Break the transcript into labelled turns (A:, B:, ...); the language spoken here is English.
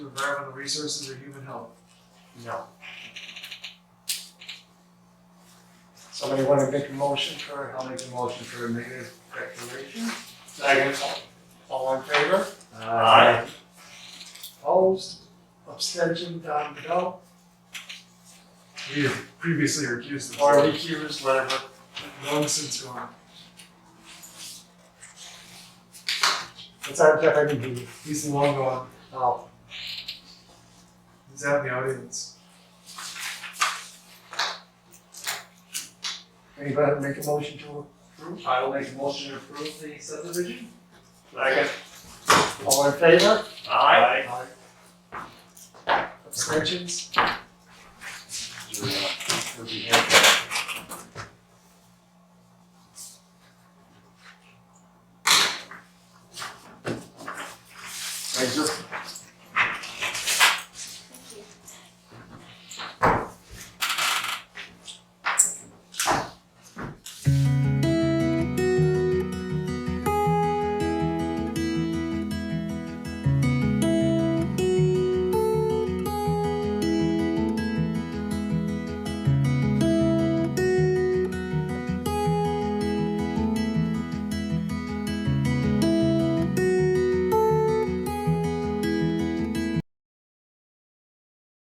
A: environmental resources, or human health? No. Somebody wanna make a motion for, I'll make a motion for a negative declaration? Second. All in favor?
B: Aye.
A: Opposed? Abstention, Don Bell? We have previously recused the. Or recused, whatever. Long since gone. It's our Jeff, I mean, he, he's long gone. Oh. He's out in the audience. Anybody make a motion to approve?
B: I will make a motion to approve the subdivision.
A: Second. All in favor?
B: Aye.
A: Abstentions?
B: Would you hand that